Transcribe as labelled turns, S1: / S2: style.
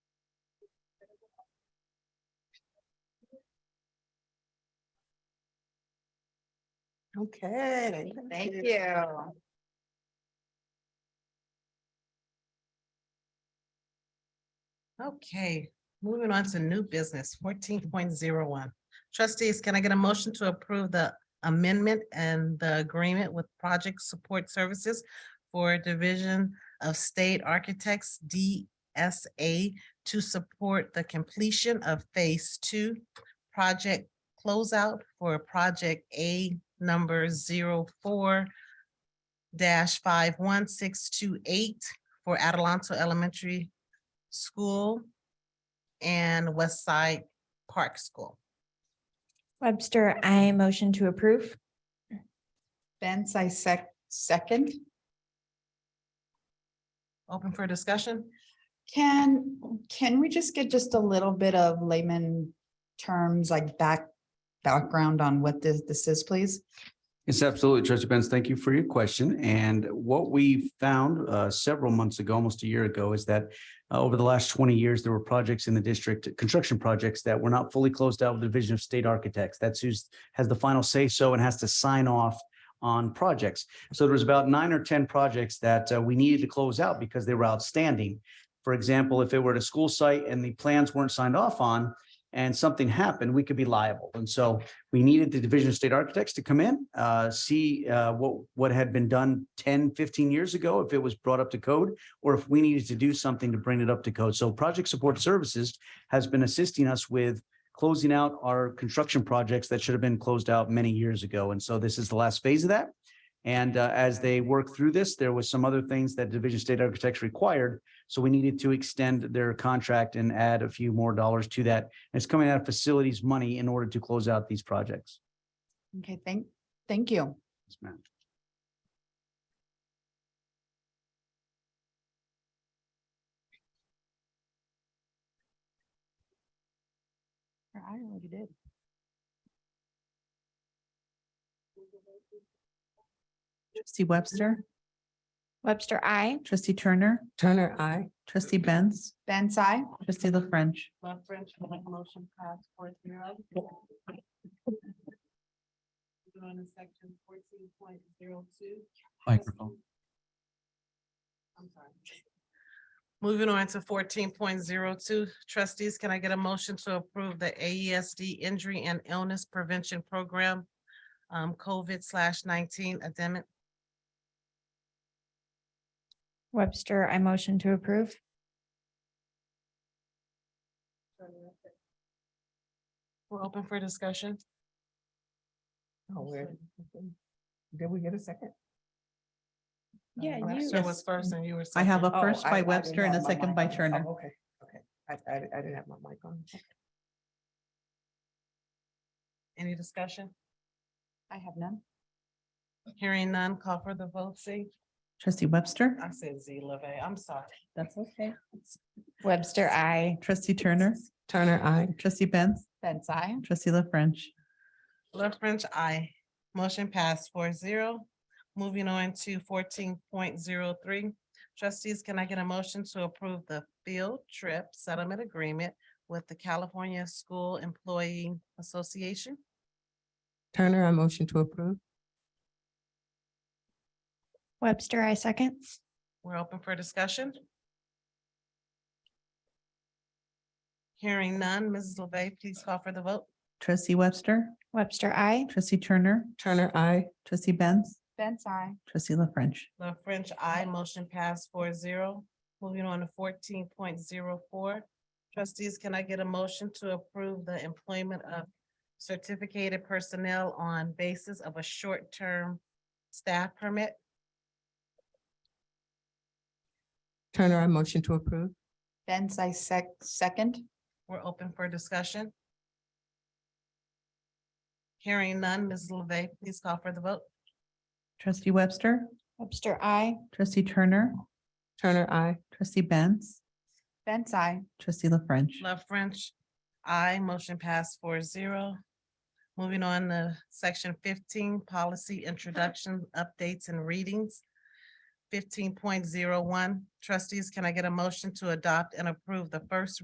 S1: Okay.
S2: Thank you.
S1: Okay, moving on to new business fourteen point zero one. Trustees, can I get a motion to approve the amendment and the agreement with Project Support Services for Division of State Architects, DSA, to support the completion of Phase Two project closeout for Project A number 4 five one six two eight for Adelanto Elementary School and West Side Park School.
S3: Webster, I motion to approve.
S2: Benz, I sec, second.
S1: Open for discussion?
S2: Can, can we just get just a little bit of layman terms like back, background on what this, this is, please?
S4: Yes, absolutely, Trustee Benz. Thank you for your question. And what we found uh, several months ago, almost a year ago, is that uh, over the last 20 years, there were projects in the district, construction projects that were not fully closed out with the Division of State Architects. That's who's has the final say so and has to sign off on projects. So there was about nine or 10 projects that uh, we needed to close out because they were outstanding. For example, if it were at a school site and the plans weren't signed off on and something happened, we could be liable. And so we needed the Division of State Architects to come in, uh, see, uh, what, what had been done 10, 15 years ago, if it was brought up to code, or if we needed to do something to bring it up to code. So Project Support Services has been assisting us with closing out our construction projects that should have been closed out many years ago. And so this is the last phase of that. And, uh, as they work through this, there was some other things that Division of State Architects required. So we needed to extend their contract and add a few more dollars to that it's coming out of facilities money in order to close out these projects.
S2: Okay, thank, thank you.
S4: Yes, ma'am.
S2: I already did.
S5: Trustee Webster,
S3: Webster, I.
S5: trustee Turner,
S1: Turner, I.
S5: trustee Benz,
S2: Benz, I.
S5: trustee La French.
S1: Love French, motion pass four zero. On to section fourteen point zero two. I'm sorry. Moving on to fourteen point zero two, trustees, can I get a motion to approve the AESD Injury and Illness Prevention Program? um, COVID slash nineteen addendum,
S3: Webster, I motion to approve.
S1: we're open for discussion.
S6: Oh, weird. Did we get a second?
S2: Uh,
S3: Yeah, you-
S1: Webster was first and you were.
S5: I have
S1: second.
S5: a first
S6: Oh, I- I
S5: by
S6: didn't
S5: Webster and a
S6: have my
S5: second
S6: mic
S5: by
S6: on. Oh,
S5: Turner.
S6: Okay, okay. I, I, I didn't have my mic on.
S1: Any discussion?
S2: I have none.
S1: Hearing none, call for the vote, see?
S5: Trustee Webster,
S1: I said Z Leve, I'm sorry.
S5: that's okay.
S3: Webster, I.
S5: Trustee Turner,
S6: Turner, I.
S5: trustee Benz,
S2: Benz, I.
S5: trustee La French.
S1: Left French, I. Motion passed four zero. Moving on to fourteen point zero three. Trustees, can I get a motion to approve the field trip settlement agreement with the California School Employee Association?
S6: Turner, I motion to approve.
S3: Webster, I second.
S1: We're open for discussion. Hearing none, Mrs. LeVey, please call for the vote.
S5: Trustee Webster,
S3: Webster, I.
S5: trustee Turner,
S6: Turner, I.
S5: trustee Benz,
S2: Benz, I.
S5: trustee La French.
S1: The French, I motion passed four zero. Moving on to fourteen point zero four. Trustees, can I get a motion to approve the employment of certificated personnel on basis of a short-term staff permit?
S6: Turner, I motion to approve.
S2: Benz, I sec, second.
S1: We're open for discussion. Hearing none, Ms. LeVey, please call for the vote.
S5: Trustee Webster,
S3: Webster, I.
S5: trustee Turner,
S6: Turner, I.
S5: trustee Benz,
S2: Benz, I.
S5: trustee La French.
S1: Love French, I motion passed four zero. Moving on to section fifteen, policy introduction, updates and readings. Fifteen point zero one, trustees, can I get a motion to adopt and approve the first